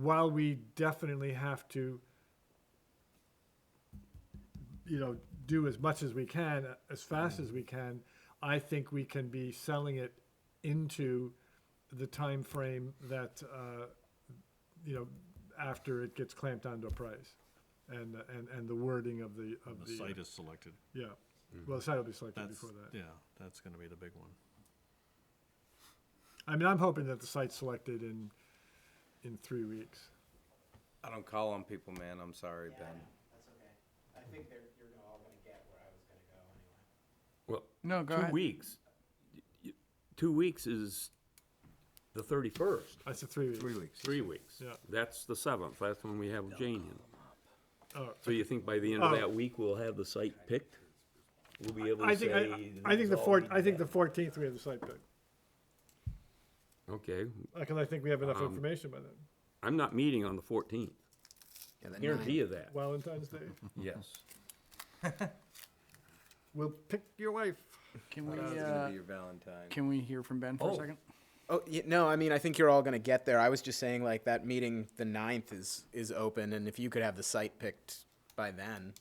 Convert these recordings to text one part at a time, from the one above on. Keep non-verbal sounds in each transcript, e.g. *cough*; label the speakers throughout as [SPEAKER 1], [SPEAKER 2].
[SPEAKER 1] while we definitely have to, you know, do as much as we can, as fast as we can, I think we can be selling it into the time frame that, uh, you know, after it gets clamped onto a price. And, and, and the wording of the, of
[SPEAKER 2] The
[SPEAKER 1] the,
[SPEAKER 2] site is selected.
[SPEAKER 1] yeah. Well, the site will be selected
[SPEAKER 2] That's,
[SPEAKER 1] before that.
[SPEAKER 2] yeah, that's gonna be the big one.
[SPEAKER 1] I mean, I'm hoping that the site's selected in, in three weeks.
[SPEAKER 3] I don't call on people, man. I'm sorry, Ben.
[SPEAKER 4] That's okay. I think they're, you're all gonna get where I was
[SPEAKER 5] Well,
[SPEAKER 4] gonna go anyway.
[SPEAKER 6] No, go
[SPEAKER 5] two
[SPEAKER 6] ahead.
[SPEAKER 5] weeks. Y- y- Two weeks is the thirty-first.
[SPEAKER 1] I said three weeks.
[SPEAKER 3] Three weeks.
[SPEAKER 5] Three weeks.
[SPEAKER 1] Yeah.
[SPEAKER 5] That's the seventh. That's when we have Jane in.
[SPEAKER 1] Oh.
[SPEAKER 5] So you think by the end of
[SPEAKER 1] Oh.
[SPEAKER 5] that week, we'll have the site picked? We'll be able
[SPEAKER 1] I
[SPEAKER 5] to
[SPEAKER 1] think,
[SPEAKER 5] say.
[SPEAKER 1] I, I think the four, I think the fourteenth we have the site pick,
[SPEAKER 5] Okay,
[SPEAKER 1] because I think we have enough
[SPEAKER 7] Um,
[SPEAKER 1] information by then,
[SPEAKER 5] I'm not meeting on the fourteenth. Guarantee you that.
[SPEAKER 7] *laughs*
[SPEAKER 1] Valentine's Day.
[SPEAKER 5] Yes.
[SPEAKER 1] We'll pick your wife.
[SPEAKER 6] Can
[SPEAKER 3] That
[SPEAKER 6] we,
[SPEAKER 3] was
[SPEAKER 6] uh,
[SPEAKER 3] gonna be your Valentine.
[SPEAKER 6] can we hear from Ben for a
[SPEAKER 5] Oh.
[SPEAKER 6] second?
[SPEAKER 4] Oh, y no, I mean, I think you're all gonna get there. I was just saying like that meeting, the ninth is, is open and if you could have the site picked by then,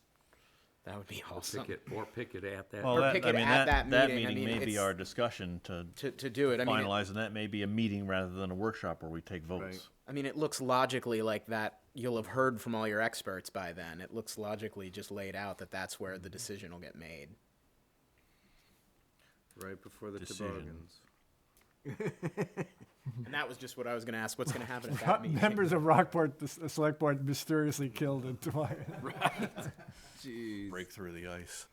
[SPEAKER 4] that would be awesome.
[SPEAKER 5] Pick it, or pick it at that.
[SPEAKER 2] Well,
[SPEAKER 4] Or
[SPEAKER 2] that,
[SPEAKER 4] pick
[SPEAKER 2] I
[SPEAKER 4] it
[SPEAKER 2] mean,
[SPEAKER 4] at
[SPEAKER 2] that,
[SPEAKER 4] that
[SPEAKER 2] that
[SPEAKER 4] meeting. I
[SPEAKER 2] meeting
[SPEAKER 4] mean,
[SPEAKER 2] may be
[SPEAKER 4] it's-
[SPEAKER 2] our discussion to
[SPEAKER 4] To, to do it, I mean, it-
[SPEAKER 2] finalize, and that may be a meeting rather than a workshop where we take votes.
[SPEAKER 4] I mean, it looks logically like that you'll have heard from all your experts by then. It looks logically just laid out that that's where the decision will get made.
[SPEAKER 3] Right before the
[SPEAKER 2] Decision.
[SPEAKER 3] toboggans.
[SPEAKER 5] Hmm.
[SPEAKER 4] And that was just what I was gonna ask, what's
[SPEAKER 5] *laughs*
[SPEAKER 4] gonna happen at
[SPEAKER 7] *laughs*
[SPEAKER 4] that meeting?
[SPEAKER 1] Members of Rockport, the s- uh, select board mysteriously killed in Tobias.
[SPEAKER 3] Jeez.
[SPEAKER 2] Break through the ice.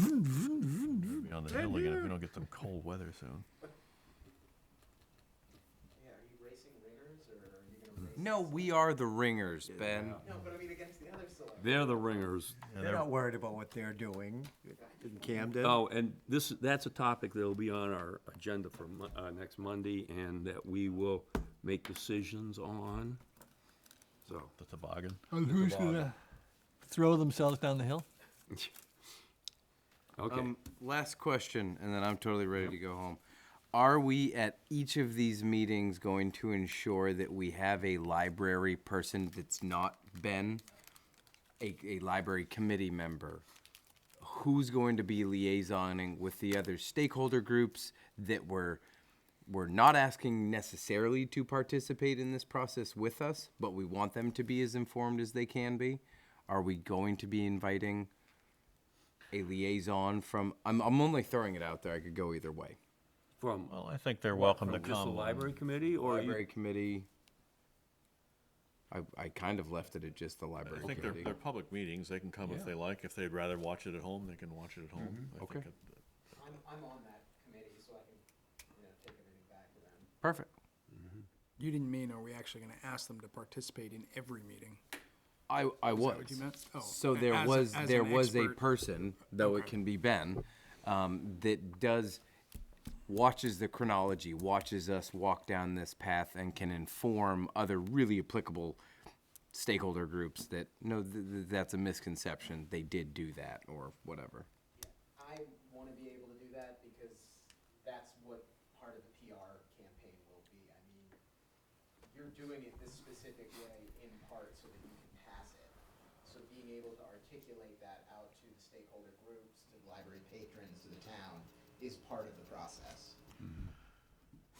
[SPEAKER 2] We'll be on the hill again if we don't get some cold weather soon.
[SPEAKER 4] Yeah, are you racing ringers or are you gonna race?
[SPEAKER 3] No, we are the ringers, Ben.
[SPEAKER 4] No, but I mean against the other select.
[SPEAKER 5] They're the ringers.
[SPEAKER 7] They're not worried about what they're doing in Camden.
[SPEAKER 5] Oh, and this, that's a topic that'll be on our agenda for Mon- uh, next Monday, and that we will make decisions on. So,
[SPEAKER 2] The toboggan.
[SPEAKER 8] And who's gonna throw themselves down the hill?
[SPEAKER 5] okay,
[SPEAKER 3] Um, last question, and then I'm totally ready to go home. Are we at each of these meetings going to ensure that we have a library person that's not Ben, a, a library committee member? Who's going to be liaisoning with the other stakeholder groups that were we're not asking necessarily to participate in this process with us, but we want them to be as informed as they can be? Are we going to be inviting? a liaison from, I'm, I'm only throwing it out there, I could go either way.
[SPEAKER 5] from,
[SPEAKER 2] Well, I think they're welcome to
[SPEAKER 5] from just the
[SPEAKER 2] come.
[SPEAKER 5] library committee, or you?
[SPEAKER 3] Library committee. I, I kind of left it at just the library
[SPEAKER 2] I think they're,
[SPEAKER 3] committee.
[SPEAKER 2] they're public meetings. They can come if they like. If they'd rather watch it at home, they can watch it at home.
[SPEAKER 5] Mm-hmm.
[SPEAKER 2] I
[SPEAKER 3] Okay.
[SPEAKER 2] think it-
[SPEAKER 4] I'm, I'm on that committee, so I can, you know, take everything back to them.
[SPEAKER 3] Perfect.
[SPEAKER 6] You didn't mean, are we actually gonna ask them to participate in every meeting?
[SPEAKER 3] I, I was.
[SPEAKER 6] what you meant? Oh,
[SPEAKER 3] So
[SPEAKER 6] a-
[SPEAKER 3] there
[SPEAKER 6] as a-
[SPEAKER 3] was,
[SPEAKER 6] as
[SPEAKER 3] there
[SPEAKER 6] an
[SPEAKER 3] was a
[SPEAKER 6] expert.
[SPEAKER 3] person, though it can be Ben, um, that does, watches the chronology, watches us walk down this path and can inform other really applicable stakeholder groups that, no, th- th- that's a misconception. They did do that or whatever.
[SPEAKER 4] I want to be able to do that because that's what part of the PR campaign will be. I mean, you're doing it this specific way in part so that you can pass it. So being able to articulate that out to the stakeholder groups, to the library patrons, to the town, is part of the process.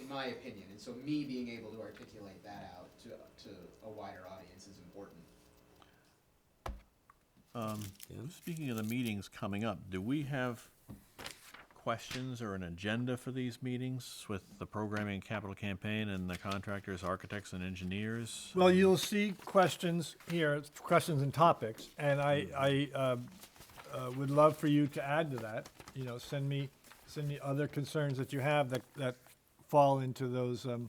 [SPEAKER 4] In my opinion, and so me being able to articulate that out to, to a wider audience is important.
[SPEAKER 2] Speaking of the meetings coming up, do we have questions or an agenda for these meetings with the programming and capital campaign and the contractors, architects, and engineers?
[SPEAKER 1] Well, you'll see questions here, it's questions and topics, and I, I um, uh, would love for you to add to that. You know, send me, send me other concerns that you have that, that fall into those, um,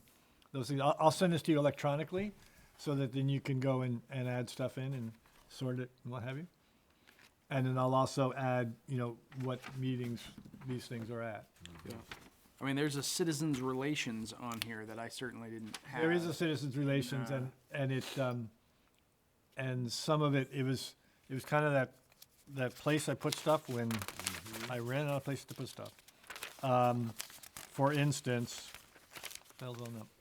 [SPEAKER 1] those things. I'll, I'll send this to you electronically, so that then you can go and, and add stuff in and sort it and what have you. And then I'll also add, you know, what meetings these things are at.
[SPEAKER 6] I mean, there's a citizens relations on here that I certainly didn't have.
[SPEAKER 1] There is a citizens relations and, and it, um, and some of it, it was, it was kind of that, that place I put stuff when I ran out of places to put stuff. Um, for instance, hell's on up.